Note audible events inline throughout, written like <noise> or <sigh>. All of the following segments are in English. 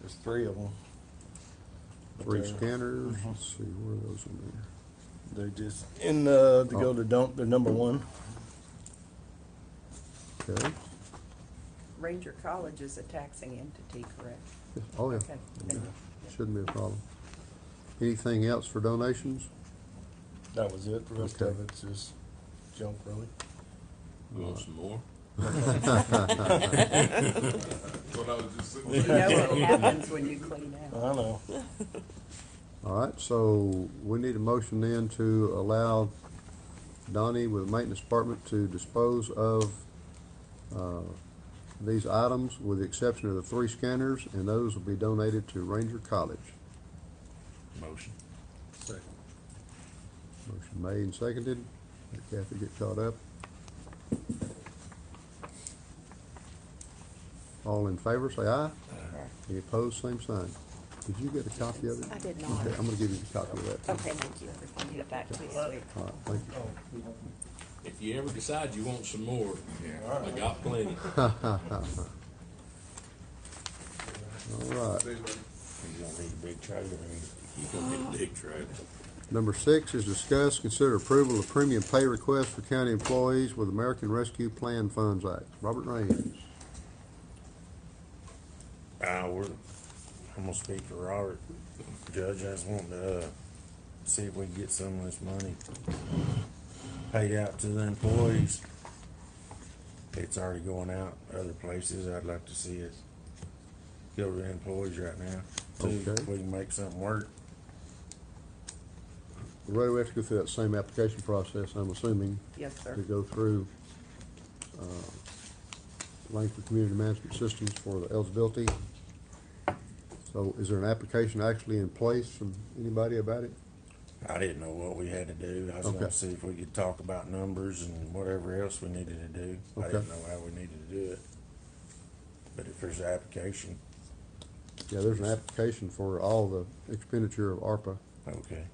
There's three of them. But Three they're- scanners, Mhm. let's see, where are those in there? They're just in the, to Oh. go to dump, they're number one. Okay, Ranger College is a taxing entity, correct? Yeah, oh yeah, Okay, thank you. shouldn't be a problem. Anything else for donations? That was it. The rest Okay. of it's just junk, really. You want some more? What I was just <laughs> You know what happens when you clean I out. know. All right, so we need a motion then to allow Donnie with the maintenance department to dispose of, uh, these items with the exception of the three scanners, and those will be donated to Ranger College. Motion. Second. Motion made and seconded. Let Kathy get caught up. All in favor, say aye. Any opposed, same sign. Did you get a copy of it? I did not. Okay, I'm gonna give you the copy of that. too. Okay, thank you. I'll get it back to you this week. All right, thank you. If you ever decide you want some more, I got plenty. All right. You don't need a big trailer, You gonna need a big trailer. Number six is discuss, consider approval of premium pay request for county employees with American Rescue Plan Funds Act. Robert Raines. Uh, we're, I'm gonna speak for Robert. Judge, I just want to, uh, see if we can get some of this money paid out to the employees. It's already going out other places. I'd like to see it go to the employees right now. too, Okay. If we can make something work. Right, we have to go through that same application process, I'm assuming. Yes, sir. to go through uh, Langford Community Management Systems for the eligibility. So is there an application actually in place from anybody about it? I didn't know what we had to do. I was Okay. gonna see if we could talk about numbers and whatever else we needed to do. I Okay. didn't know how we needed to do it. But if there's an application, Yeah, there's an application for all the expenditure of ARPA. okay.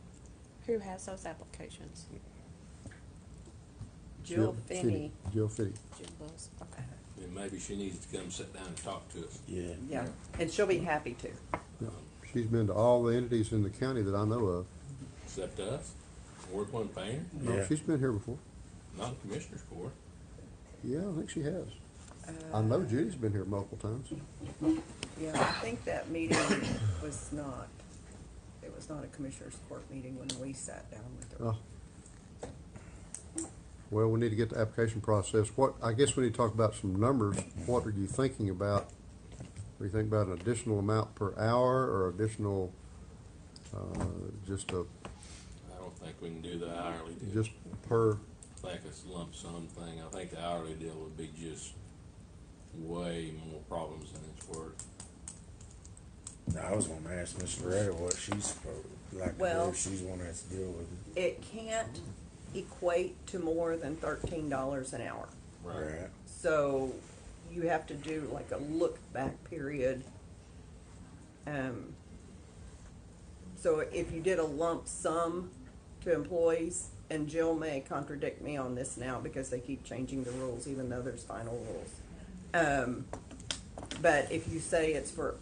Who has those applications? Jill Fitty- Finney, Jill Finney. Jim Buzz? Okay. Then maybe she needs to come sit down and talk to us. Yeah. yeah, and she'll be happy to. Yeah. She's been to all the entities in the county that I know of. Except us. Work one painter, No, Yeah. She's been here before. not the commissioner's court. Yeah, I think she has. I Uh, know Judy's been here multiple times. Yeah, I think that meeting was not, it was not a commissioners court meeting when we sat down with her. Oh. Well, we need to get the application process. What, I guess we need to talk about some numbers. What are you thinking about? Are you thinking about an additional amount per hour or additional, uh, just a, I don't think we can do the hourly deal. just per, I think it's a lump sum thing. I think the hourly deal would be just way more problems than it's worth. I was gonna ask Miss Loretta what she's supposed, like, Well- if she's gonna have to deal with it. It can't equate to more than thirteen dollars an hour. Right. So you have to do like a look back period. Um, so if you did a lump sum to employees, and Jill may contradict me on this now because they keep changing the rules, even though there's final rules. Um, but if you say it's for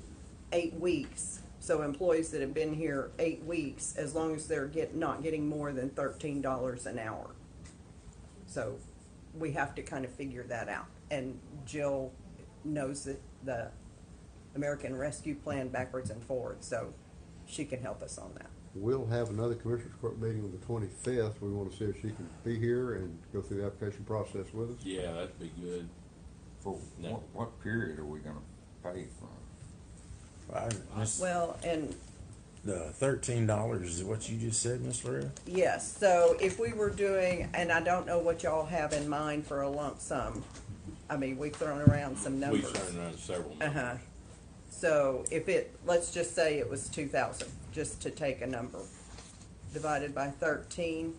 eight weeks, so employees that have been here eight weeks, as long as they're get, not getting more than thirteen dollars an hour. So we have to kind of figure that out. And Jill knows that the American Rescue Plan backwards and forwards, so she can help us on that. we'll have another commissioners court meeting on the twenty-fifth. We want to see if she can be here and go through the application process with us. Yeah, that'd be good. For No. what, what period are we gonna pay from? I, Miss, Well, and the thirteen dollars is what you just said, Miss Loretta? yes, so if we were doing, and I don't know what y'all have in mind for a lump sum. I mean, we've thrown around some We've numbers. turned around several Uh numbers. huh. So if it, let's just say it was two thousand, just to take a number, divided by thirteen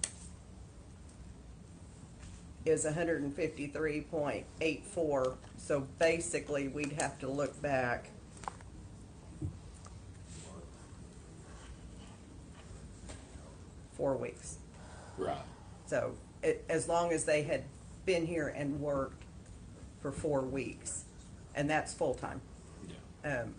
is hundred and fifty-three point eight four. So basically, we'd have to look back. Four weeks. Right. So it, as long as they had been here and worked for four weeks, and that's full-time. Yeah. Um,